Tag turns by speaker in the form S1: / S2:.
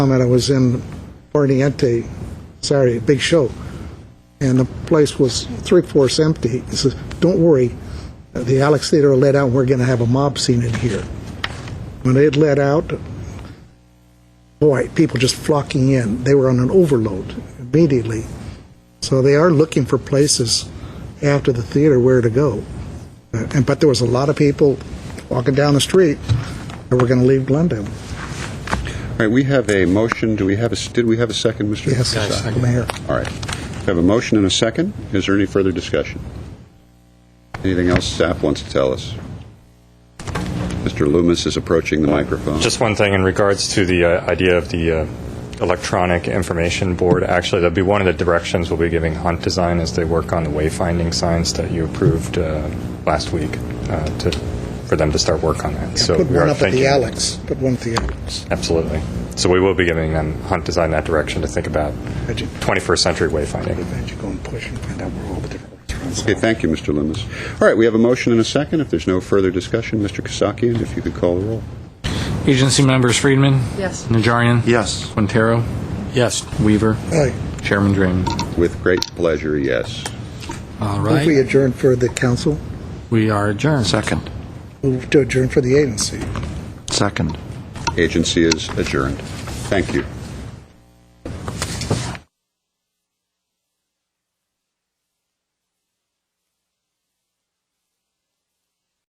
S1: comment, I was in Oriente, Saturday, big show, and the place was three-fourths empty. He says, "Don't worry, the Alex Theater will let out, and we're going to have a mob scene in here." When it let out, boy, people just flocking in. They were on an overload immediately. So they are looking for places after the theater where to go. Uh, And, but there was a lot of people walking down the street that were going to leave Glendale.
S2: All right, we have a motion, do we have a, s- did we have a second, Mr.?
S1: Yes, Mayor.
S2: All right. We have a motion and a second. Is there any further discussion? Anything else staff wants to tell us? Mr. Loomis is approaching the microphone.
S3: Just one thing in regards to the uh, idea of the uh, electronic information board, actually, that'll be one of the directions we'll be giving Hunt Design as they work on the wayfinding signs that you approved uh, last week uh, to, for them to start work on that. So
S1: Put
S3: we
S1: one
S3: are
S1: up at the
S3: thinking.
S1: Alex, put one at the Alex.
S3: Absolutely. So we will be giving them, Hunt Design, that direction to think about
S1: Imagine.
S3: 21st century wayfinding.
S1: you go and push and find out where all the different restaurants
S2: Okay, thank you, Mr. Loomis. All right, we have a motion and a second. If there's no further discussion, Mr. Kasakian, if you could call the roll.
S4: Agency members Friedman?
S5: Yes.
S4: Najarian?
S6: Yes.
S4: Quintero? Yes. Weaver?
S1: Aye.
S4: Chairman Draymond?
S2: With great pleasure, yes.
S4: All
S1: Move we
S4: right,
S1: adjourn for the council,
S4: we are adjourned.
S6: Second.
S1: move to adjourn for the agency.
S6: Second.
S2: Agency is adjourned. Thank you.